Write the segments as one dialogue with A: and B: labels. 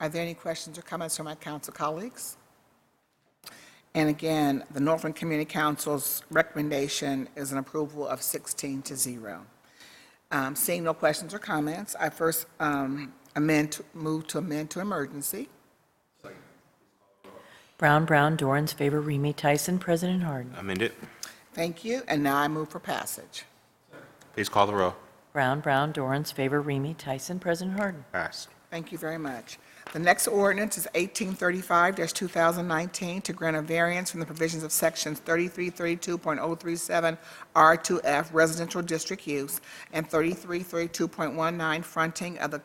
A: Are there any questions or comments from my council colleagues? And again, the Northland Community Council's recommendation is an approval of 16 to 0. Um, Seeing no questions or comments, I first um, amend, move to amend to emergency.
B: Brown, Brown, Dorans, favor, Remy Tyson, President Harden.
C: Amend it.
A: Thank you, and now I move for passage.
C: Please call the row.
B: Brown, Brown, Dorans, favor, Remy Tyson, President Harden.
C: Passed.
A: Thank you very much. The next ordinance is 1835-2019 to grant a variance from the provisions of Sections 3332.037 R2F Residential District Use and 3332.19 Fronting of the,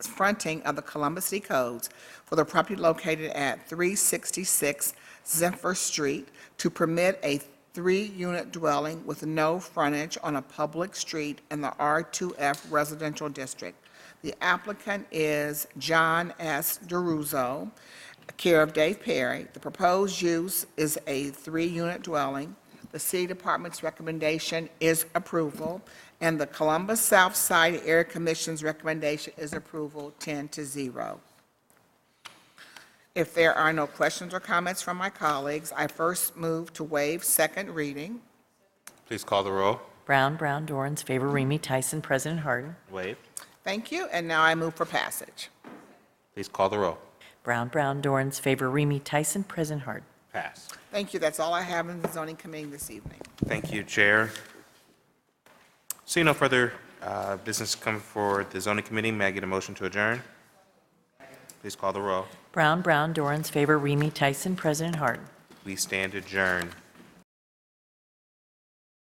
A: Fronting of the Columbus City Codes for the property located at 366 Zephyr Street to permit a three-unit dwelling with no frontage on a public street in the R2F Residential District. The applicant is John S. DeRuzo, care of Dave Perry. The proposed use is a three-unit dwelling. The city department's recommendation is approval, and the Columbus South Side Area Commission's recommendation is approval 10 to 0. If there are no questions or comments from my colleagues, I first move to waive second reading.
C: Please call the row.
B: Brown, Brown, Dorans, favor, Remy Tyson, President Harden.
C: Waived.
A: Thank you, and now I move for passage.
C: Please call the row.
B: Brown, Brown, Dorans, favor, Remy Tyson, President Harden.
C: Passed.
A: Thank you, that's all I have in the zoning committee this evening.
C: Thank you, Chair. Seeing no further uh, business coming for the zoning committee, may I get a motion to adjourn? Please call the row.
B: Brown, Brown, Dorans, favor, Remy Tyson, President Harden.
C: We stand adjourned.